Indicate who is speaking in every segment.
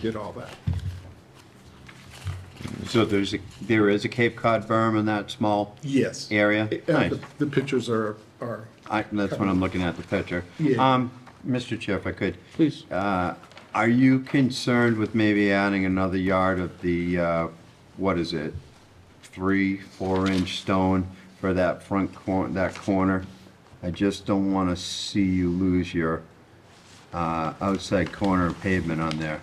Speaker 1: did all that.
Speaker 2: So there's, a- there is a Cape Cod berm in that small?
Speaker 1: Yes.
Speaker 2: Area?
Speaker 1: Uh, The
Speaker 2: Nice.
Speaker 1: the pictures are, are,
Speaker 2: I, that's when I'm looking at the picture.
Speaker 1: Yeah.
Speaker 2: Um, Mr. Chair, if I could,
Speaker 3: Please.
Speaker 2: uh, are you concerned with maybe adding another yard of the, uh, what is it? Three, four-inch stone for that front cor, that corner? I just don't want to see you lose your, uh, outside corner pavement on there.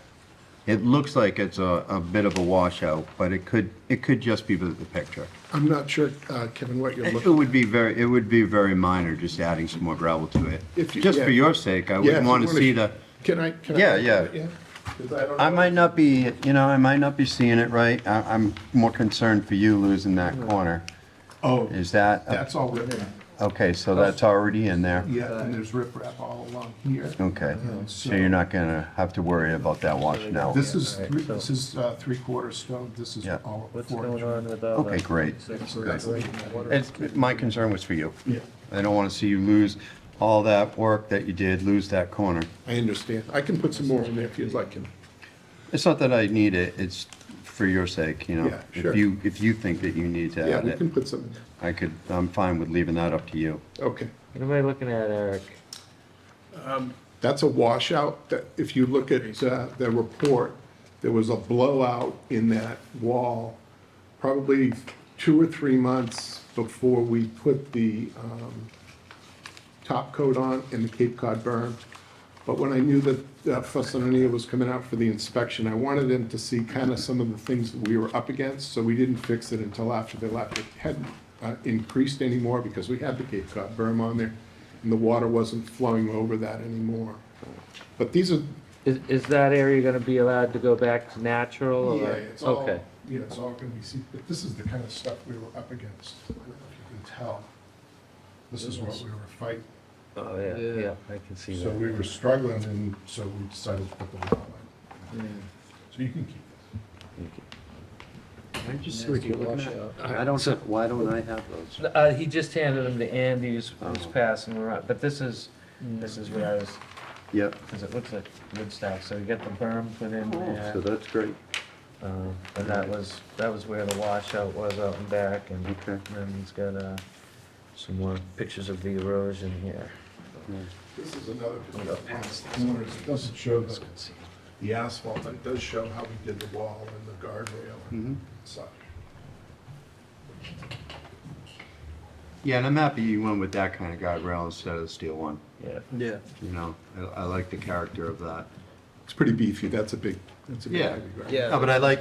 Speaker 2: It looks like it's a, a bit of a washout, but it could, it could just be the the picture.
Speaker 1: I'm not sure, uh, Kevin, what you're
Speaker 2: It
Speaker 1: looking.
Speaker 2: would be very, it would be very minor, just adding some more gravel to it.
Speaker 1: If you-
Speaker 2: Just
Speaker 1: yeah.
Speaker 2: for your sake, I
Speaker 1: Yeah, if
Speaker 2: wouldn't
Speaker 1: you
Speaker 2: want to
Speaker 1: wanna-
Speaker 2: see the,
Speaker 1: Can I? can I-
Speaker 2: Yeah, yeah.
Speaker 1: 'Cause I don't
Speaker 2: I
Speaker 1: know.
Speaker 2: might not be, you know, I might not be seeing it right. I, I'm more concerned for you losing that corner.
Speaker 1: Oh,
Speaker 2: Is that,
Speaker 1: that's all written,
Speaker 2: okay, so that's already in there?
Speaker 1: Oh. yeah, and there's riprap all along here.
Speaker 2: Okay, so you're not gonna have to worry about that washout.
Speaker 1: uh, This is,
Speaker 4: Yeah,
Speaker 1: three-
Speaker 4: so-
Speaker 1: this is uh, three-quarter stone, this is
Speaker 2: Yeah.
Speaker 1: all
Speaker 4: What's
Speaker 1: four
Speaker 4: going
Speaker 1: inch.
Speaker 4: on with uh, all the?
Speaker 2: Okay, great.
Speaker 1: So that's leaking water.
Speaker 2: It's, my concern was for you.
Speaker 1: Yeah.
Speaker 2: I don't want to see you lose all that work that you did, lose that corner.
Speaker 1: I understand, I can put some more in there if you'd like, Kevin.
Speaker 2: It's not that I need it, it's for your sake, you know?
Speaker 1: Yeah, sure.
Speaker 2: If you, if you think that you need to
Speaker 1: yeah,
Speaker 2: add
Speaker 1: we
Speaker 2: it,
Speaker 1: can put some,
Speaker 2: I could, I'm fine with leaving that up to you.
Speaker 1: okay.
Speaker 4: What am I looking at, Eric?
Speaker 1: That's a washout, that, if you look at uh, the report, there was a blowout in that wall, probably two or three months before we put the um, top coat on and the Cape Cod berm. But when I knew that uh, Fussin O'Neill was coming out for the inspection, I wanted them to see kind of some of the things that we were up against, so we didn't fix it until after they left. It hadn't uh, increased anymore because we had the Cape Cod berm on there, and the water wasn't flowing over that anymore. But these are,
Speaker 4: Is, is that area gonna be allowed to go back to natural or?
Speaker 1: yeah, it's all, yeah,
Speaker 4: Oh, Okay,
Speaker 1: it's all gonna be, seen. but this is the kind of stuff we were up against. I don't know if you can tell. This is what we were fighting.
Speaker 4: oh, yeah, yeah, I can see
Speaker 5: So
Speaker 4: that.
Speaker 5: we were struggling and so we decided to put the lot line. So you can keep this.
Speaker 3: I just see what you're looking at? I don't, have- why don't I have those?
Speaker 4: Uh, he just handed them to Andy who's, who's
Speaker 1: Oh.
Speaker 4: passing around, but this is, this is what I was,
Speaker 2: Yep,
Speaker 4: cause it looks like wood stock, so you got the berm put in
Speaker 1: Oh.
Speaker 3: uh,
Speaker 4: there.
Speaker 2: so that's great,
Speaker 4: Um, and that was, that was where the washout was out and back and
Speaker 2: okay.
Speaker 4: then he's got, uh, some more pictures of the erosion here.
Speaker 1: This is another,
Speaker 5: It doesn't show the,
Speaker 1: the asphalt, but it does show how we did the wall and the guardrail and such.
Speaker 2: Yeah, and I'm happy you went with that kind of guardrail instead of the steel one,
Speaker 4: Yeah.
Speaker 3: Yeah.
Speaker 2: you know, I, I like the character of that.
Speaker 1: It's pretty beefy, that's a big, that's a big.
Speaker 2: Yeah.
Speaker 1: heavy guardrail.
Speaker 3: Yeah.
Speaker 2: No, but I like,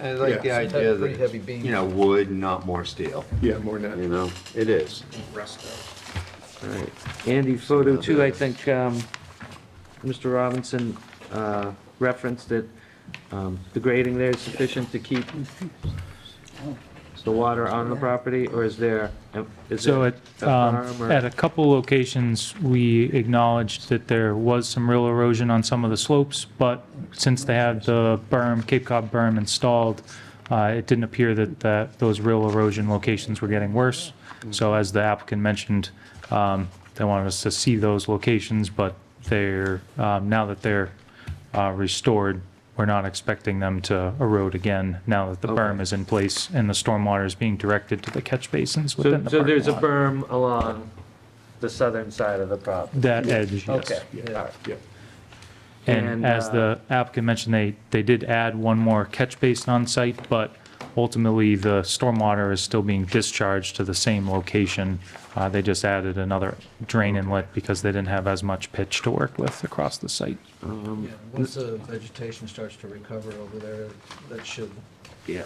Speaker 2: I like the
Speaker 1: Yeah.
Speaker 2: idea that,
Speaker 3: Pretty heavy
Speaker 2: it's,
Speaker 3: beams.
Speaker 2: you know, wood, not more steel,
Speaker 1: Yeah, more than
Speaker 2: you
Speaker 1: that.
Speaker 2: know, it is.
Speaker 4: Alright, Andy, photo two, I think, um, Mr. Robinson, uh, referenced that, um, the grading there is sufficient to keep the water on the property, or is there, is there
Speaker 6: So
Speaker 4: a
Speaker 6: at, um,
Speaker 4: berm or-
Speaker 6: at a couple locations, we acknowledged that there was some real erosion on some of the slopes, but since they had the berm, Cape Cod berm installed, uh, it didn't appear that, that those real erosion locations were getting worse. So as the applicant mentioned, um, they wanted us to see those locations, but they're, um, now that they're, uh, restored, we're not expecting them to erode again now that the berm is in place and the stormwater is being directed to the catch basins within
Speaker 4: So,
Speaker 6: the
Speaker 4: so
Speaker 6: parking
Speaker 4: there's a
Speaker 6: lot.
Speaker 4: berm along the southern side of the property?
Speaker 6: That edge, yes.
Speaker 4: Okay, alright.
Speaker 1: Yeah.
Speaker 6: And
Speaker 4: And,
Speaker 6: as
Speaker 4: uh,
Speaker 6: the applicant mentioned, they, they did add one more catch basin on site, but ultimately the stormwater is still being discharged to the same location. Uh, They just added another drain inlet because they didn't have as much pitch to work with across the site.
Speaker 4: Um,
Speaker 3: Yeah, once the vegetation starts to recover over there, that should
Speaker 4: yeah.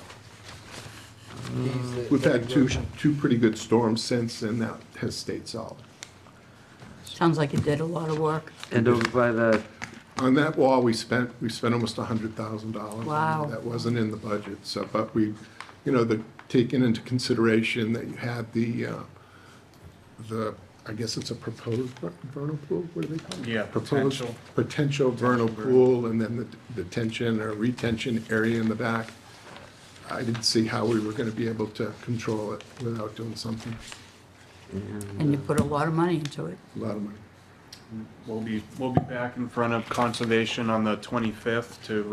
Speaker 3: ease the.
Speaker 1: We've
Speaker 3: the
Speaker 1: had two,
Speaker 3: erosion.
Speaker 1: two pretty good storms since, and that has stayed solid.
Speaker 7: Sounds like you did a lot of work.
Speaker 4: And over by the,
Speaker 1: On that wall, we spent, we spent almost a hundred thousand dollars.
Speaker 7: Wow.
Speaker 1: That wasn't in the budget, so, but we, you know, the, taking into consideration that you had the, uh, the, I guess it's a proposed ver- vernal pool, what do they call it? Yeah, potential. Potential vernal pool, and then the detention or retention area in the back. I didn't see how we were gonna be able to control it without doing something,
Speaker 7: And you put a lot of money into it.
Speaker 1: a lot of money.
Speaker 8: We'll be, we'll be back in front of conservation on the 25th to